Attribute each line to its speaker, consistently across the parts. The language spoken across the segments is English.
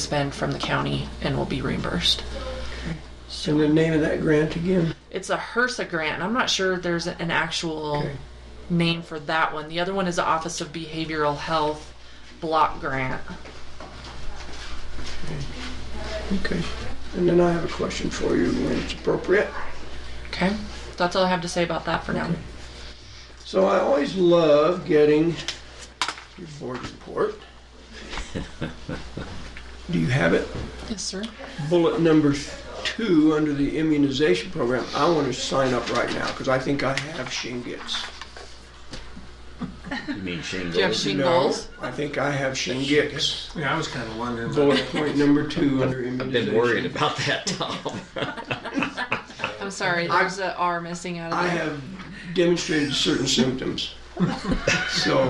Speaker 1: spend from the county and will be reimbursed.
Speaker 2: And the name of that grant again?
Speaker 1: It's a HRSA grant. I'm not sure there's an actual name for that one. The other one is the Office of Behavioral Health Block Grant.
Speaker 2: Okay. And then I have a question for you when it's appropriate.
Speaker 1: Okay, that's all I have to say about that for now.
Speaker 2: So I always love getting your board report. Do you have it?
Speaker 1: Yes, sir.
Speaker 2: Bullet number two under the immunization program. I want to sign up right now because I think I have shingles.
Speaker 3: You mean shingles?
Speaker 1: Do you have shingles?
Speaker 2: No, I think I have shingles.
Speaker 4: Yeah, I was kind of wondering. about
Speaker 2: Bullet point number two under
Speaker 3: I've
Speaker 2: immunization.
Speaker 3: been worried about that, Tom.
Speaker 1: I'm sorry, there's a R missing out of
Speaker 2: I
Speaker 1: there.
Speaker 2: have demonstrated certain symptoms. So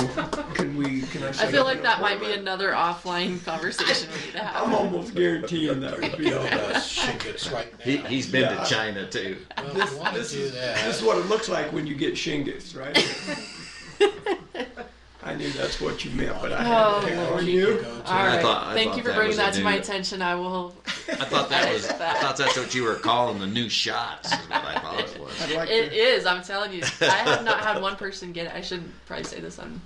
Speaker 2: can we, can I set
Speaker 1: I feel
Speaker 2: up
Speaker 1: like
Speaker 2: an
Speaker 1: that might be
Speaker 2: appointment?
Speaker 1: another offline conversation we need to
Speaker 2: I'm
Speaker 1: have.
Speaker 2: almost guaranteeing that would be all that.
Speaker 5: Shingles right now.
Speaker 3: he, he's been
Speaker 2: Yeah.
Speaker 3: to China too.
Speaker 5: well, if you want to do
Speaker 2: This is
Speaker 5: that,
Speaker 2: what it looks like when you get shingles, right? I knew that's what you meant, but I had to pick
Speaker 1: Oh,
Speaker 2: on
Speaker 1: Lordy.
Speaker 2: you.
Speaker 5: go to
Speaker 1: All right,
Speaker 3: thought- I
Speaker 1: thank
Speaker 3: thought
Speaker 1: you for
Speaker 3: that
Speaker 1: bringing
Speaker 3: was a
Speaker 1: that to my
Speaker 3: new-
Speaker 1: attention. I will.
Speaker 3: I thought that was. I thought that's what you were calling the new shots. Is what I thought it was.
Speaker 2: I'd like
Speaker 1: It
Speaker 2: to,
Speaker 1: is. I'm telling you. I have not had one person get it. I shouldn't probably say this on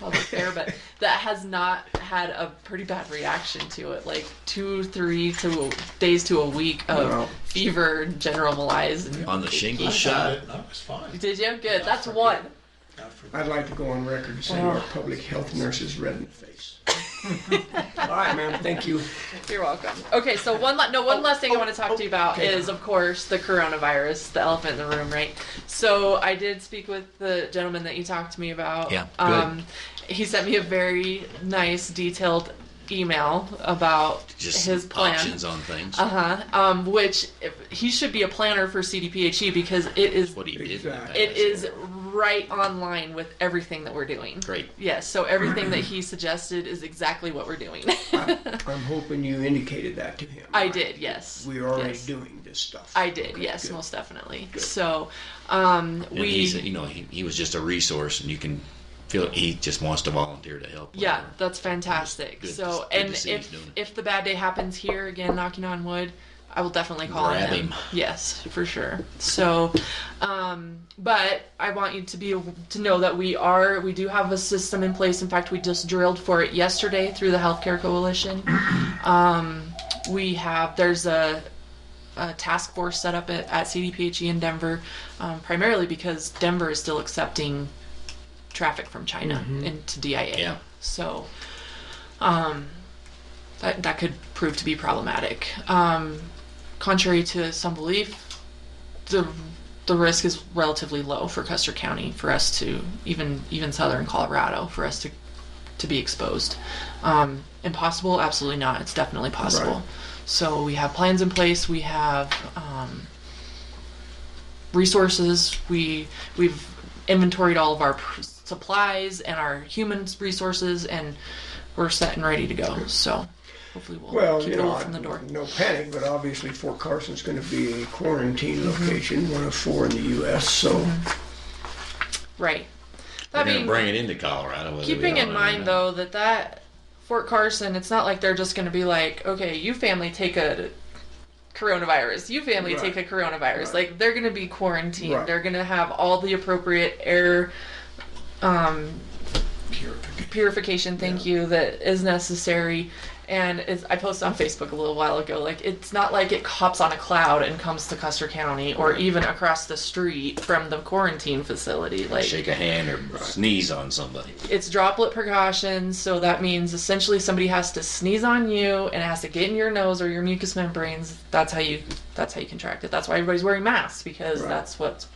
Speaker 1: public air, but that has not had a pretty bad reaction to it. Like two, three to days to a week of
Speaker 2: Wow.
Speaker 1: fever, general malaise. And
Speaker 3: On the shingle
Speaker 5: I got
Speaker 3: shot.
Speaker 5: it. and I was fine.
Speaker 1: Did you? Good. That's one.
Speaker 5: I forgot.
Speaker 2: I'd like to go on record to say our
Speaker 1: Oh.
Speaker 2: public health nurse is red in the face. All right, ma'am, thank you.
Speaker 1: You're welcome. Okay, so one la- no one last thing I want to talk to you about
Speaker 2: okay.
Speaker 1: is of course the coronavirus, the elephant in the room, right? So I did speak with the gentleman that you talked to me about.
Speaker 3: Yeah, good.
Speaker 1: Um, he sent me a very nice, detailed email about
Speaker 3: Just
Speaker 1: his plan.
Speaker 3: options on things.
Speaker 1: Uh huh. Um, which if, he should be a planner for CDPHE E because it is
Speaker 3: what he did. in the past.
Speaker 2: Exactly.
Speaker 1: it is right on line with everything that we're doing.
Speaker 3: great.
Speaker 1: Yes. So everything that he suggested is exactly what we're doing.
Speaker 2: I'm hoping you indicated that to him.
Speaker 1: I did. Yes.
Speaker 2: We're already
Speaker 1: yes.
Speaker 2: doing this stuff.
Speaker 1: I did, yes,
Speaker 2: good.
Speaker 1: most definitely. So, um,
Speaker 3: And
Speaker 1: we,
Speaker 3: he's you know he, he was just a resource, and you can feel he just wants to volunteer to help.
Speaker 1: yeah,
Speaker 3: whenever.
Speaker 1: that's fantastic.
Speaker 3: Good to-
Speaker 1: so,
Speaker 3: good to
Speaker 1: and
Speaker 3: see he's
Speaker 1: if
Speaker 3: doing it.
Speaker 1: if the bad day happens here again, knocking on wood, I will definitely call
Speaker 3: Grab
Speaker 1: on him.
Speaker 3: him.
Speaker 1: Yes, for sure. So, um, but I want you to be to know that we are we do have a system in place. In fact, we just drilled for it yesterday through the Healthcare Coalition. Um, we have there's a, a task force set up at, at CDPHE E in Denver, um, primarily because Denver is still accepting traffic from China into DIA.
Speaker 3: Yeah.
Speaker 1: So, um, that that could prove to be problematic. Um, contrary to some belief, the the risk is relatively low for Custer County for us to even even southern Colorado for us to to be exposed. Um, impossible? Absolutely not. It's definitely possible.
Speaker 2: Right.
Speaker 1: So we have plans in place. We have um, resources. We we've inventoried all of our pr- supplies and our human resources, and we're set and ready to go. So hopefully we'll,
Speaker 2: Well,
Speaker 1: keep
Speaker 2: you
Speaker 1: the
Speaker 2: know,
Speaker 1: wolf from the door.
Speaker 2: no panic, but obviously Fort Carson's going to be a quarantine
Speaker 1: Mm-hmm.
Speaker 2: location, one of four in the U.S. So
Speaker 1: Right.
Speaker 3: They're
Speaker 1: That
Speaker 3: going to
Speaker 1: being
Speaker 3: bring it into Colorado. whether we
Speaker 1: keeping
Speaker 3: don't
Speaker 1: in
Speaker 3: know or
Speaker 1: mind
Speaker 3: not.
Speaker 1: though that that Fort Carson, it's not like they're just going to be like, okay, you family take a coronavirus, you family
Speaker 2: Right.
Speaker 1: take a coronavirus.
Speaker 2: Right.
Speaker 1: Like they're going to be quarantined.
Speaker 2: Right.
Speaker 1: They're going to have all the appropriate air um, purification. Thank you that is necessary. And it's, I posted on Facebook a little while ago, like it's not like it hops on a cloud and comes to Custer County or even across the street from the quarantine facility. Like
Speaker 3: shake a hand or sneeze on somebody.
Speaker 1: it's droplet precautions, so that means essentially somebody has to sneeze on you and it has to get in your nose or your mucous membranes. That's how you that's how you contract it. That's why everybody's wearing masks because
Speaker 2: Right.
Speaker 1: that's what's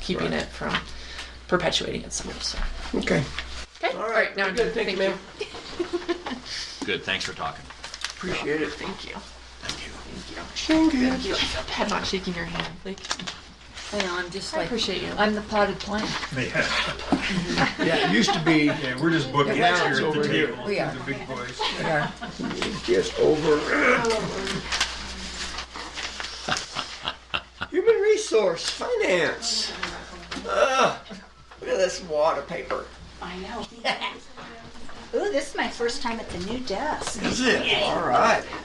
Speaker 1: keeping
Speaker 2: Right.
Speaker 1: it from perpetuating itself. So
Speaker 2: okay,
Speaker 1: okay,
Speaker 2: all right,
Speaker 1: now
Speaker 2: very good. Thank you, ma'am.
Speaker 3: Good. Thanks for talking.
Speaker 2: Appreciate it.
Speaker 1: Thank you.
Speaker 2: Thank you.
Speaker 1: Thank you. I feel bad not shaking your hand. Like
Speaker 6: I know, I'm just
Speaker 1: I
Speaker 6: like,
Speaker 1: appreciate you.
Speaker 6: I'm the potted plant.
Speaker 4: Yeah,
Speaker 2: Yeah, it used to be
Speaker 4: yeah, we're just booking
Speaker 2: Now
Speaker 4: out
Speaker 2: it's
Speaker 4: here at
Speaker 2: over
Speaker 4: the
Speaker 2: here.
Speaker 4: table.
Speaker 6: We are.
Speaker 4: The big boys.
Speaker 2: just over. Human resource, finance. Ugh, look at this wad of paper.
Speaker 6: I know. Ooh, this is my first time at the new desk.
Speaker 2: Is it? All right.